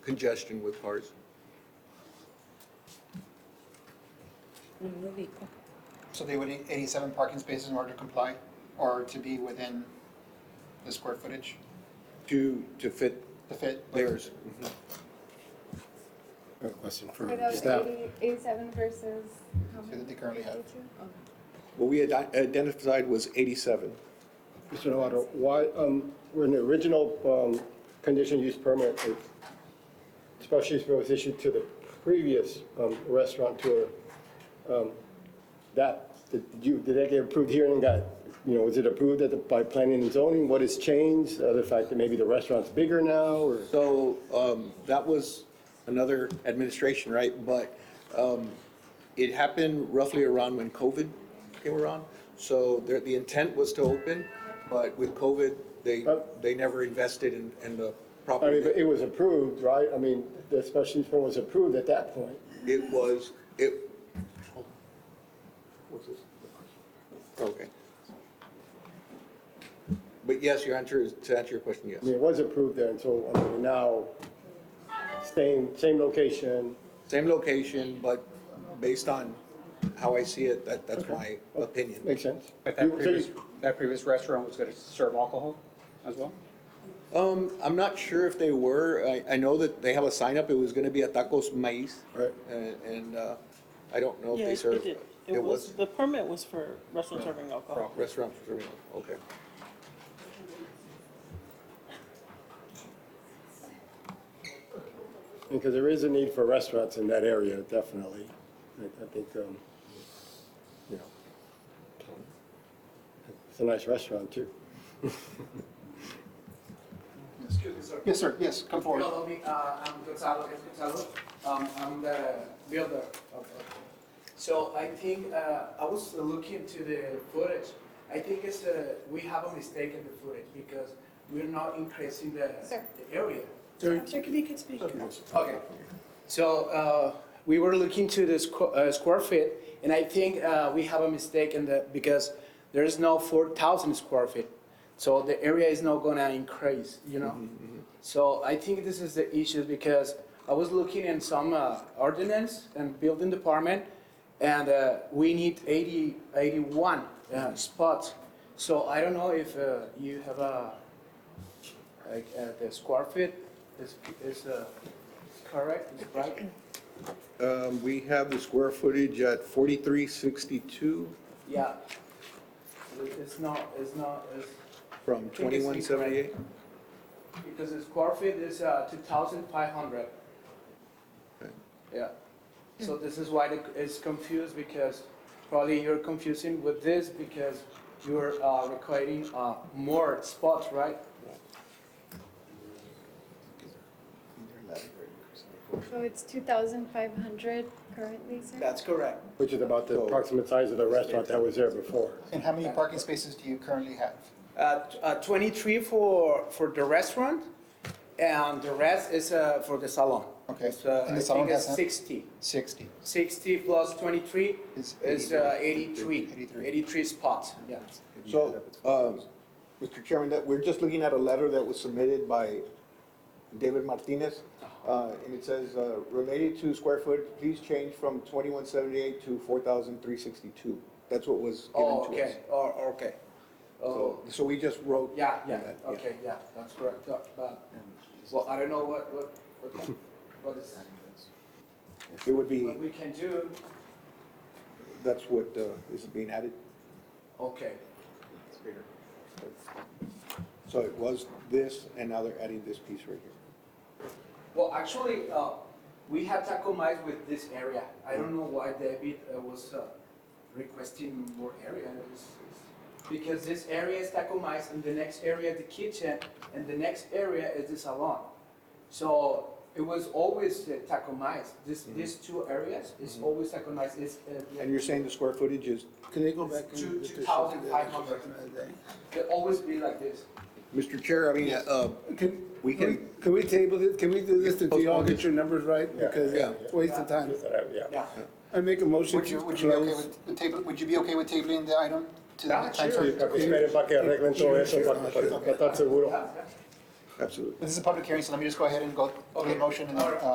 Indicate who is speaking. Speaker 1: congestion with cars.
Speaker 2: So they would need eighty-seven parking spaces in order to comply, or to be within the square footage,
Speaker 1: To, to fit
Speaker 2: the fit?
Speaker 1: theirs.
Speaker 3: I have a question
Speaker 4: So
Speaker 3: for
Speaker 4: that was
Speaker 3: staff.
Speaker 4: 80 87 versus how
Speaker 2: So that
Speaker 4: many?
Speaker 2: they currently have.
Speaker 4: 82? Okay.
Speaker 1: What we had identified was 87.
Speaker 3: Mr. Novato, why, um, when the original, um, conditional use permit, uh, special use permit was issued to the previous, um, restaurateur, um, that, did you, did that get approved here and got, you know, was it approved at the, by planning and zoning? What has changed? Uh, the fact that maybe the restaurant's bigger now, or?
Speaker 1: So um, that was another administration, right? But um, it happened roughly around when COVID came around. So there- the intent was to open, but with COVID, they, they never invested in, in the
Speaker 3: Uh, I mean,
Speaker 1: property.
Speaker 3: but it was approved, right? I mean, the special use permit was approved at that point.
Speaker 1: It was, it. What's this? Okay. But yes, your answer is, to answer your question, yes.
Speaker 3: I mean, it was approved there, and so, I mean, now, same, same location,
Speaker 1: Same location, but based on how I see it, that, that's my opinion.
Speaker 3: makes sense?
Speaker 5: But that
Speaker 3: You- so you-
Speaker 5: previous, that previous restaurant was gonna serve alcohol as well?
Speaker 1: Um, I'm not sure if they were, I, I know that they have a sign up, it was gonna be a tacos maíz.
Speaker 3: Right.
Speaker 1: And, and, uh, I don't know if they
Speaker 6: Yes,
Speaker 1: serve.
Speaker 6: it did. It was, the permit was for restaurant serving alcohol.
Speaker 1: Restaurant, for serving, okay.
Speaker 3: Because there is a need for restaurants in that area, definitely. I, I think, um, you know, it's a nice restaurant, too.
Speaker 7: Excuse me, sir.
Speaker 2: Yes, sir, yes, come forward.
Speaker 7: Hello, me, uh, I'm Gonzalo, it's Gonzalo. Um, I'm the builder of, so I think, uh, I was looking to the footage. I think it's, uh, we have a mistake in the footage because we're not increasing the,
Speaker 4: Sir.
Speaker 7: the area.
Speaker 3: Yes.
Speaker 7: Okay, so uh, we were looking to the squ- uh, square feet, and I think uh, we have a mistake in the, because there is no 4,000 square feet. So the area is not gonna increase, you know? So I think this is the issue, because I was looking in some uh, ordinance and building department, and uh, we need 80, 81 uh, spots. So I don't know if uh, you have a, like, uh, the square feet is, is uh, correct, is right?
Speaker 1: Um, we have the square footage at forty-three sixty-two
Speaker 7: Yeah. It's not, it's not, it's,
Speaker 1: from
Speaker 7: think it's
Speaker 1: twenty-one seventy-eight.
Speaker 7: because the square feet is uh, 2,500. Yeah. So this is why the- it's confused because probably you're confusing with this because you're uh, requiring uh, more spots, right?
Speaker 4: So it's 2,500 currently, sir?
Speaker 7: That's correct.
Speaker 3: Which is about the approximate size of the restaurant that was there before.
Speaker 2: And how many parking spaces do you currently have?
Speaker 7: Uh, t- uh, 23 for, for the restaurant and the rest is uh, for the salon.
Speaker 2: Okay.
Speaker 7: It's, uh,
Speaker 2: And the
Speaker 7: I
Speaker 2: salon
Speaker 7: think it's
Speaker 2: has-
Speaker 7: 60.
Speaker 2: Sixty.
Speaker 7: 60 plus 23
Speaker 2: Is
Speaker 7: is uh, 83,
Speaker 2: 83.
Speaker 7: 83 spots, yeah.
Speaker 1: So, um, Mr. Chairman, that, we're just looking at a letter that was submitted by David Martinez.
Speaker 7: Uh-huh.
Speaker 1: Uh, and it says, uh, related to square foot, please change from twenty-one seventy-eight to four thousand three sixty-two. That's what was
Speaker 7: Oh,
Speaker 1: given to us.
Speaker 7: okay, or, okay. Oh,
Speaker 1: So, so we just wrote.
Speaker 7: yeah, yeah,
Speaker 1: that,
Speaker 7: okay, yeah, that's correct, uh, but, well, I don't know what, what, what, what is,
Speaker 1: It would be,
Speaker 7: what we can do,
Speaker 1: that's what, uh, is being added.
Speaker 7: okay.
Speaker 1: So it was this, and now they're adding this piece right here.
Speaker 7: Well, actually, uh, we had Taco Mice with this area. I don't know why David uh, was uh, requesting more area. It's- it's- Because this area is Taco Mice, and the next area is the kitchen, and the next area is the salon. So it was always uh, Taco Mice. This, these two areas is always Taco Mice. It's, uh,
Speaker 1: And you're saying the square footage is,
Speaker 8: Can they go back
Speaker 7: it's
Speaker 8: and?
Speaker 7: two,
Speaker 8: get
Speaker 7: two
Speaker 8: this
Speaker 7: thousand
Speaker 8: shit
Speaker 7: five
Speaker 8: together?
Speaker 7: hundred. It always be like this.
Speaker 1: Mr. Chair, I mean, uh,
Speaker 8: Can,
Speaker 1: We
Speaker 8: can,
Speaker 1: can-
Speaker 8: we- can we table this, can we do this until you all get your numbers right?
Speaker 3: Yeah,
Speaker 8: Because
Speaker 1: yeah.
Speaker 8: it's a waste of time.
Speaker 7: Yeah.
Speaker 8: I make a motion
Speaker 2: Would
Speaker 8: to
Speaker 2: you, would you be okay
Speaker 8: close.
Speaker 2: with, with table, would you be okay with tabling the item to the
Speaker 7: Yeah,
Speaker 2: time?
Speaker 7: sure.
Speaker 2: frame?
Speaker 3: Para que esperen para que arreglen todo eso, para, para- para estar seguro.
Speaker 1: absolutely.
Speaker 2: This is a public hearing, so let me just go ahead and go over the motion and then, uh,